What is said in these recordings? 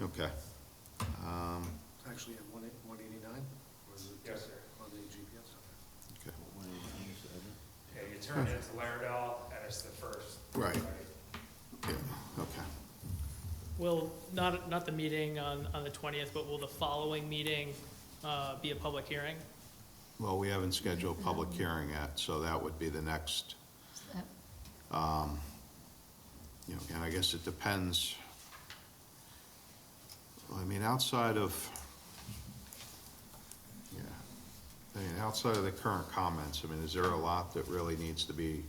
Okay. Um, Actually, at one eight- 189? Or is it Yes, sir. On the GPS, okay. okay. Yeah, you turn into Laredale, and it's the first. Right. Yeah, okay. Will, not, not the meeting on, on the 20th, but will the following meeting uh, be a public hearing? Well, we haven't scheduled a public hearing yet, so that would be the next, um, Uh, you know, and I guess it depends. Well, I mean, outside of, yeah, I mean, outside of the current comments, I mean, is there a lot that really needs to be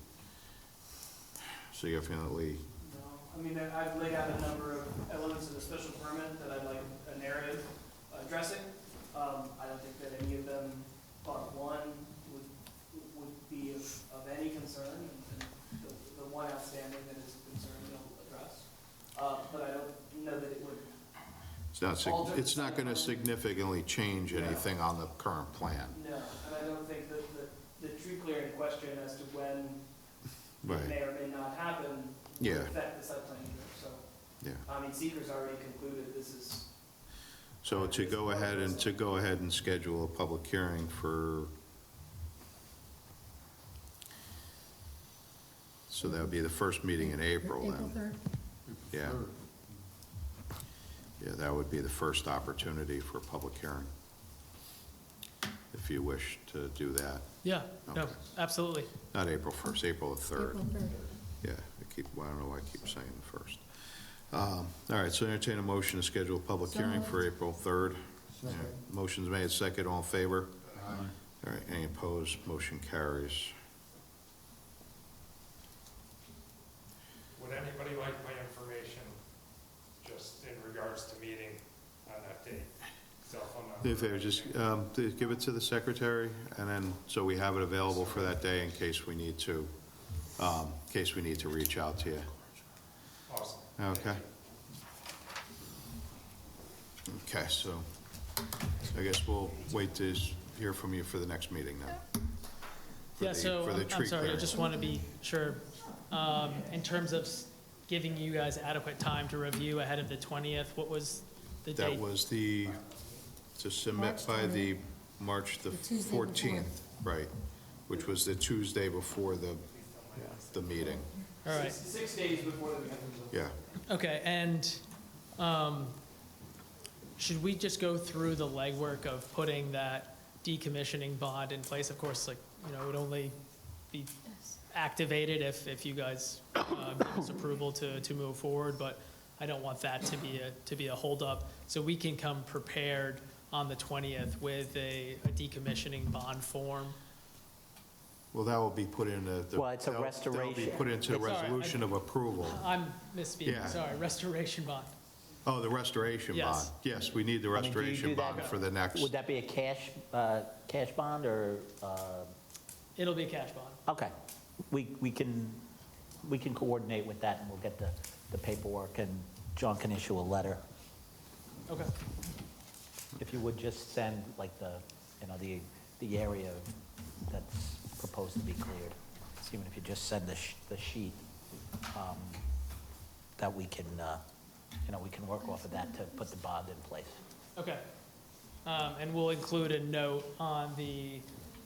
significantly, No, I mean, I- I've laid out a number of elements of the special permit that I'd like a narrative addressing. Um, I don't think that any of them, but one would, would be of, of any concern, and the, the one outstanding that is concerned, I'll address. Uh, but I don't know that it would, it's not, sig- it's not gonna significantly change anything on the current plan. no, and I don't think that the, the tree clearing question as to when it Right, may or may not happen would Yeah. affect the site plan either, so. yeah. I mean, seeker's already concluded this is So to go ahead and, to go ahead and schedule a public hearing for, so that would be the first meeting in April April then? 3rd. Yeah. Yeah, that would be the first opportunity for a public hearing, if you wish to do that. Yeah, no, Okay. absolutely. Not April 1st, April the 3rd. April 3rd. Yeah, I keep, I don't know why I keep saying the first. Um, All right, so entertain a motion to schedule a public So hearing moved. for April 3rd. Yeah, Motion's made, second, all in favor? Aye. All right, any opposed, motion carries. Would anybody like my information, just in regards to meeting on that date? Cell phone number. If they just, um, to give it to the secretary, and then, so we have it available for that day in case we need to, um, in case we need to reach out to you. Awesome. Okay. Okay, so I guess we'll wait to s- hear from you for the next meeting then. For Yeah, the- so, for the I'm- I'm tree sorry, I clearing. just want to be sure, um, in terms of s- giving you guys adequate time to review ahead of the 20th, what was the That date? was the, to submit March by the 20th. March the The Tuesday before. 14th, right, which was the Tuesday before the, the meeting, All right, six, six days before the meeting. yeah. okay, and um, should we just go through the legwork of putting that decommissioning bond in place? Of course, like, you know, it would only be Yes. activated if, if you guys uh, give us approval to, to move forward, but I don't want that to be a, to be a holdup. So we can come prepared on the 20th with a a decommissioning bond form. Well, that will be put in the. the- Well, it's a that'll- That'll be restoration. put into the It's all right, I- resolution of approval. I'm Yeah. misspeaking, sorry, restoration bond. Oh, the restoration bond. Yes. Yes, we need the I mean, do you restoration do that- bond for the next. Would that be a cash, uh, cash bond or, uh, It'll be a cash bond. okay. We, we can, we can coordinate with that and we'll get the, the paperwork and John can issue a letter. Okay, If you would just send like the, you know, the, the area that's proposed to be cleared. So Even if you just send the, sh- the sheet, um, that we can, uh, you know, we can work off of that to put the bond in place. okay. Um, And we'll include a note on the,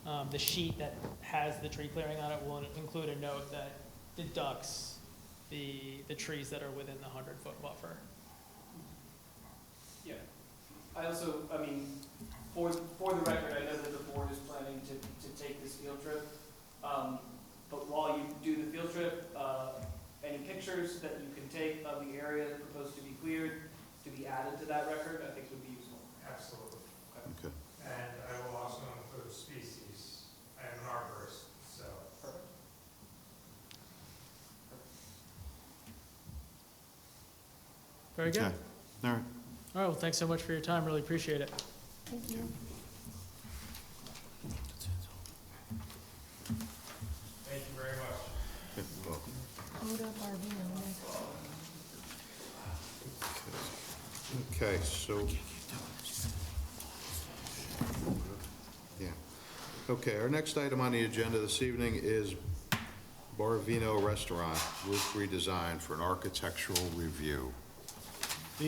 um, the sheet that has the tree clearing on it. We'll include a note that deducts the, the trees that are within the 100-foot buffer. Yeah. I also, I mean, for, for the record, I know that the board is planning to, to take this field trip. Um, But while you do the field trip, uh, any pictures that you can take of the area proposed to be cleared, to be added to that record, I think would be useful. Absolutely. Okay. And I will also include species. I am an arborist, so. Perfect. Very good. Okay. All right. All right, well, thanks so much for your time, really appreciate it. Thank you. Thank you very much. Okay, well, Hold up RV on next. Okay, so. Yeah. Okay, our next item on the agenda this evening is Barvino Restaurant, roof redesign for an architectural review.